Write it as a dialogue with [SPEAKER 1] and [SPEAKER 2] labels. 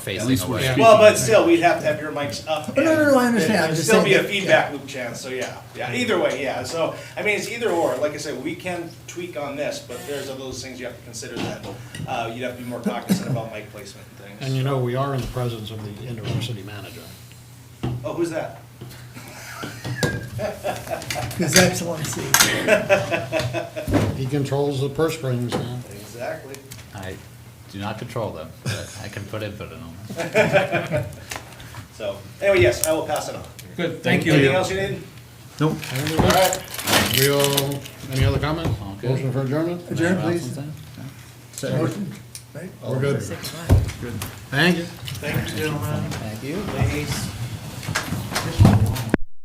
[SPEAKER 1] Phasing
[SPEAKER 2] At least we're
[SPEAKER 1] away.
[SPEAKER 2] speaking.
[SPEAKER 3] Well, but still, we'd have to have your mics up.
[SPEAKER 4] Oh, No, no, no, I
[SPEAKER 3] and
[SPEAKER 4] understand.
[SPEAKER 3] there'd
[SPEAKER 4] I'm just
[SPEAKER 3] Still be a
[SPEAKER 4] saying that-
[SPEAKER 3] feedback loop chance, so yeah, yeah, either way, yeah, so, I mean, it's either or, like I said, we can tweak on this, but there's other those things you have to consider that, uh, you'd have to be more cognizant about mic placement and
[SPEAKER 5] And
[SPEAKER 3] things.
[SPEAKER 5] you know, we are in the presence of the interim city manager.
[SPEAKER 3] Oh, who's that?
[SPEAKER 4] His Excellency.
[SPEAKER 5] He controls the purse strings now.
[SPEAKER 3] Exactly.
[SPEAKER 1] I do not control them, but I can put input in them.
[SPEAKER 3] So, anyway, yes, I will pass it on.
[SPEAKER 2] Good, thank you.
[SPEAKER 3] Anything else you need?
[SPEAKER 2] Nope.
[SPEAKER 5] There we go. Real, any other comments?
[SPEAKER 1] All good.
[SPEAKER 5] Motion for adjournment?
[SPEAKER 4] Adjourn, please.
[SPEAKER 1] Something?
[SPEAKER 4] Motion, right?
[SPEAKER 5] We're good.
[SPEAKER 4] Six, five.
[SPEAKER 5] Thank you.
[SPEAKER 3] Thank you, gentlemen.
[SPEAKER 1] Thank you.
[SPEAKER 3] Ladies.